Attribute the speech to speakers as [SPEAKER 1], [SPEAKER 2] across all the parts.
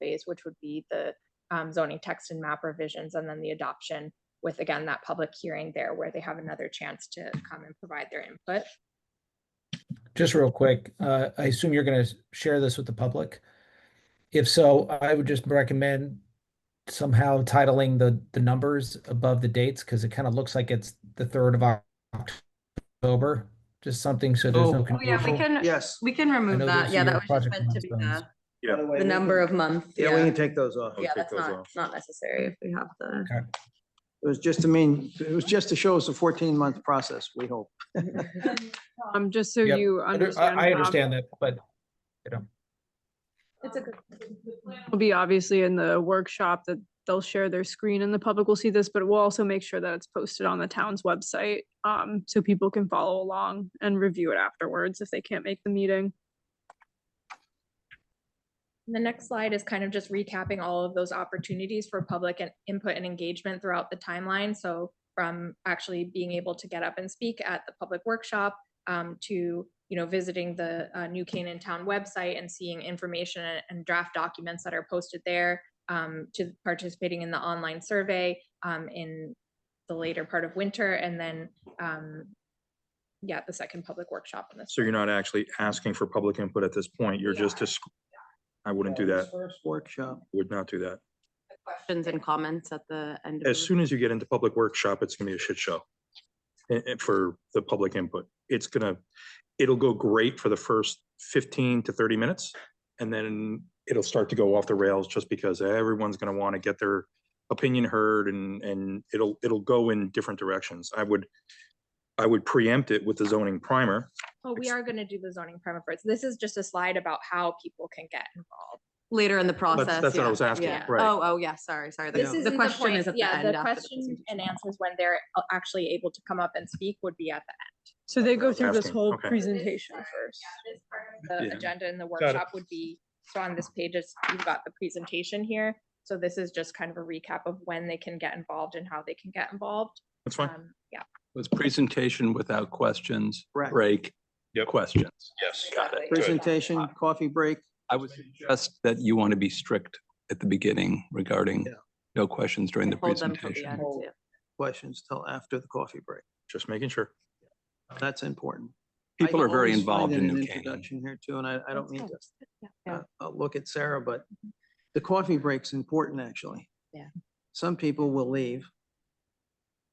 [SPEAKER 1] phase, which would be the um, zoning text and map revisions, and then the adoption with, again, that public hearing there where they have another chance to come and provide their input.
[SPEAKER 2] Just real quick, uh, I assume you're going to share this with the public. If so, I would just recommend somehow titling the the numbers above the dates because it kind of looks like it's the third of Oc- October. Just something so there's no
[SPEAKER 3] Oh.
[SPEAKER 4] Oh, yeah, we
[SPEAKER 2] confusion.
[SPEAKER 4] can,
[SPEAKER 3] Yes.
[SPEAKER 4] we can
[SPEAKER 2] I
[SPEAKER 4] remove
[SPEAKER 2] know
[SPEAKER 4] that.
[SPEAKER 2] those
[SPEAKER 4] Yeah,
[SPEAKER 2] are
[SPEAKER 4] that
[SPEAKER 2] your
[SPEAKER 4] was just
[SPEAKER 2] project
[SPEAKER 4] meant to be the,
[SPEAKER 2] milestones.
[SPEAKER 3] By way,
[SPEAKER 4] the
[SPEAKER 3] we
[SPEAKER 4] number
[SPEAKER 3] can-
[SPEAKER 4] of months.
[SPEAKER 3] Yeah, we
[SPEAKER 4] Yeah,
[SPEAKER 3] can take those off.
[SPEAKER 4] yeah,
[SPEAKER 3] It
[SPEAKER 4] that's
[SPEAKER 5] those
[SPEAKER 4] not,
[SPEAKER 5] off.
[SPEAKER 4] not necessary if we have the,
[SPEAKER 3] was just to mean, it was just to show us a fourteen month process, we hope.
[SPEAKER 6] Um, just so
[SPEAKER 2] Yep.
[SPEAKER 6] you
[SPEAKER 2] I-
[SPEAKER 6] understand.
[SPEAKER 2] I
[SPEAKER 6] um,
[SPEAKER 2] understand that, but
[SPEAKER 4] it's a good.
[SPEAKER 6] Will be obviously in the workshop that they'll share their screen and the public will see this, but we'll also make sure that it's posted on the town's website. Um, so people can follow along and review it afterwards if they can't make the meeting.
[SPEAKER 1] The next slide is kind of just recapping all of those opportunities for public and input and engagement throughout the timeline. So from actually being able to get up and speak at the public workshop um, to, you know, visiting the uh, New Canaan Town website and seeing information and- and draft documents that are posted there um, to participating in the online survey um, in the later part of winter and then um, yeah, the second public workshop in this.
[SPEAKER 5] So you're not actually asking for public input at this point, you're just, dis- I wouldn't do that,
[SPEAKER 3] First workshop.
[SPEAKER 5] would not do that.
[SPEAKER 4] Questions and comments at the end. of
[SPEAKER 5] As
[SPEAKER 4] the-
[SPEAKER 5] soon as you get into public workshop, it's gonna be a shit show. eh, eh, for the public input, it's gonna, it'll go great for the first fifteen to thirty minutes. And then it'll start to go off the rails just because everyone's gonna wanna get their opinion heard and, and it'll, it'll go in different directions. I would, I would preempt it with the zoning primer,
[SPEAKER 1] Oh, we are going to do the zoning permit first. This is just a slide about how people can get involved.
[SPEAKER 4] Later in the process.
[SPEAKER 5] that's what I
[SPEAKER 4] yeah,
[SPEAKER 5] was asking,
[SPEAKER 4] yeah.
[SPEAKER 5] right.
[SPEAKER 4] Oh, oh, yeah, sorry, sorry.
[SPEAKER 1] This
[SPEAKER 4] The-
[SPEAKER 1] isn't
[SPEAKER 4] The question is
[SPEAKER 1] point-
[SPEAKER 4] at the
[SPEAKER 1] yeah,
[SPEAKER 4] end. after the
[SPEAKER 1] Question
[SPEAKER 4] presentation.
[SPEAKER 1] and answers when they're a- actually able to come up and speak would be at the
[SPEAKER 6] So they go through this
[SPEAKER 5] Asking,
[SPEAKER 6] whole
[SPEAKER 5] okay.
[SPEAKER 6] presentation first.
[SPEAKER 1] end. The
[SPEAKER 5] Yeah.
[SPEAKER 1] agenda in the workshop would be, so on this page, is you've got the presentation here. So this is just kind of a recap of when they can get involved and how they can get involved.
[SPEAKER 5] that's fine.
[SPEAKER 1] Um, yeah,
[SPEAKER 7] Was presentation without questions,
[SPEAKER 3] Correct.
[SPEAKER 7] break,
[SPEAKER 5] Yep.
[SPEAKER 7] questions.
[SPEAKER 5] Yes.
[SPEAKER 4] got it.
[SPEAKER 3] Presentation, coffee break.
[SPEAKER 7] I would suggest that you want to be strict at the beginning regarding
[SPEAKER 3] Yeah.
[SPEAKER 7] no questions during the
[SPEAKER 4] Hold them till the
[SPEAKER 7] presentation.
[SPEAKER 4] end, yeah.
[SPEAKER 3] questions till after the coffee break.
[SPEAKER 5] Just making sure.
[SPEAKER 3] That's important. I
[SPEAKER 7] People are very
[SPEAKER 3] always find
[SPEAKER 7] involved
[SPEAKER 3] it
[SPEAKER 7] in
[SPEAKER 3] an
[SPEAKER 7] New Canaan.
[SPEAKER 3] Introduction here too, and I, I don't
[SPEAKER 4] That's
[SPEAKER 3] mean
[SPEAKER 4] good.
[SPEAKER 3] to,
[SPEAKER 4] Yeah.
[SPEAKER 3] uh, uh, look at Sarah, but the coffee break's important, actually.
[SPEAKER 4] Yeah.
[SPEAKER 3] Some people will leave.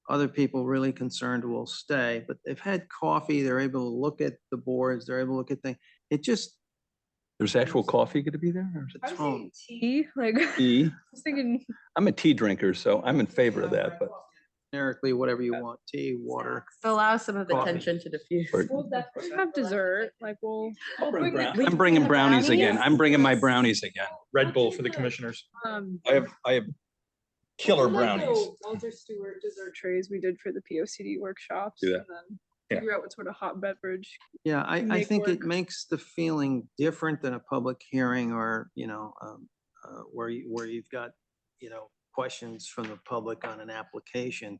[SPEAKER 3] Other people really concerned will stay, but they've had coffee, they're able to look at the boards, they're able to look at things. It just,
[SPEAKER 7] There's actual coffee going to be there? or is it
[SPEAKER 3] was thinking
[SPEAKER 6] Tea, like, I
[SPEAKER 7] Oh. Tea?
[SPEAKER 6] was thinking,
[SPEAKER 7] I'm a tea drinker, so I'm in favor of that, but
[SPEAKER 3] generically, whatever
[SPEAKER 4] Uh,
[SPEAKER 3] you want, tea, water.
[SPEAKER 4] So Allow some of the
[SPEAKER 3] Coffee.
[SPEAKER 4] tension to diffuse.
[SPEAKER 7] Or-
[SPEAKER 6] we'll definitely have dessert, like we'll, bring brown- the-
[SPEAKER 7] I'm bringing brownies
[SPEAKER 6] brownies?
[SPEAKER 7] again. I'm bringing my brownies again.
[SPEAKER 5] Red Bull for the commissioners.
[SPEAKER 6] um.
[SPEAKER 7] I have, I have killer
[SPEAKER 6] Well, like the
[SPEAKER 7] brownies.
[SPEAKER 6] Walter Stewart dessert trays we did for the P O C D workshops. and
[SPEAKER 7] Do that.
[SPEAKER 6] then
[SPEAKER 5] Yeah.
[SPEAKER 6] Figure out what sort of hot beverage.
[SPEAKER 3] Yeah, I, I
[SPEAKER 6] make
[SPEAKER 3] think it
[SPEAKER 6] work.
[SPEAKER 3] makes the feeling different than a public hearing or, you know, um, uh, where you, where you've got, you know, questions from the public on an application.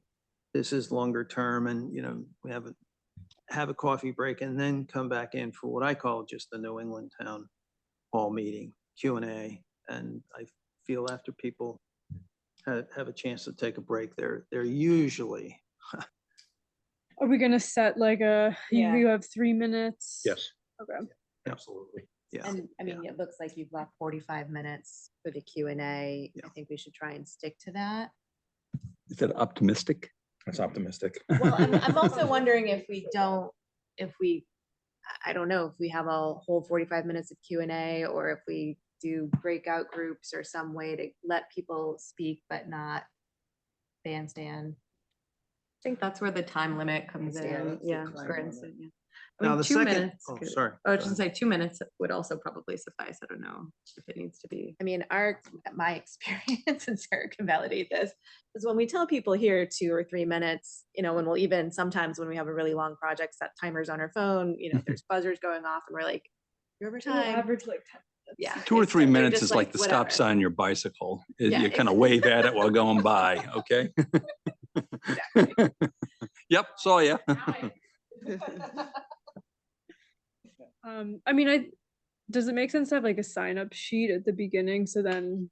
[SPEAKER 3] This is longer term and, you know, we have a, have a coffee break and then come back in for what I call just the New England Town Hall meeting, Q and A. And I feel after people have, have a chance to take a break, they're, they're usually,
[SPEAKER 6] Are we gonna set like a, you
[SPEAKER 4] Yeah.
[SPEAKER 6] you have three minutes?
[SPEAKER 5] Yes,
[SPEAKER 6] Okay.
[SPEAKER 5] absolutely.
[SPEAKER 3] yeah.
[SPEAKER 8] And I
[SPEAKER 3] yeah.
[SPEAKER 8] mean, it looks like you've left forty-five minutes for the Q and A.
[SPEAKER 3] Yeah.
[SPEAKER 8] I think we should try and stick to that.
[SPEAKER 7] Is that optimistic?
[SPEAKER 5] That's optimistic.
[SPEAKER 8] Well, I'm, I'm also wondering if we don't, if we, I, I don't know, if we have a whole forty-five minutes of Q and A or if we do breakout groups or some way to let people speak but not bandstand.
[SPEAKER 4] I think that's where the time limit comes
[SPEAKER 8] Yeah,
[SPEAKER 4] in,
[SPEAKER 3] that's the
[SPEAKER 4] yeah.
[SPEAKER 3] time
[SPEAKER 4] for
[SPEAKER 3] limit.
[SPEAKER 4] instance, yeah. I
[SPEAKER 3] Now,
[SPEAKER 4] mean,
[SPEAKER 3] the
[SPEAKER 4] two
[SPEAKER 3] second-
[SPEAKER 4] minutes
[SPEAKER 3] oh,
[SPEAKER 4] could-
[SPEAKER 3] sorry,
[SPEAKER 4] I was
[SPEAKER 3] sorry.
[SPEAKER 4] just gonna say, two minutes would also probably suffice, I don't know if it needs to be.
[SPEAKER 8] I mean, our, my experience, and Sarah can validate this, is when we tell people here two or three minutes, you know, when we'll even, sometimes when we have a really long project, set timers on our phone, you know, there's buzzers going off and we're like, you're over
[SPEAKER 6] We'll
[SPEAKER 8] time.
[SPEAKER 6] Average like ten. minutes.
[SPEAKER 8] Yeah.
[SPEAKER 7] Two or
[SPEAKER 8] it's
[SPEAKER 7] three
[SPEAKER 8] definitely
[SPEAKER 7] minutes
[SPEAKER 8] just
[SPEAKER 7] is like the stop
[SPEAKER 8] whatever.
[SPEAKER 7] sign on your bicycle.
[SPEAKER 8] Yeah,
[SPEAKER 7] You kind of wave at it while going by, okay? Yep, saw ya.
[SPEAKER 6] Um, I mean, I, does it make sense to have like a sign up sheet at the beginning? So then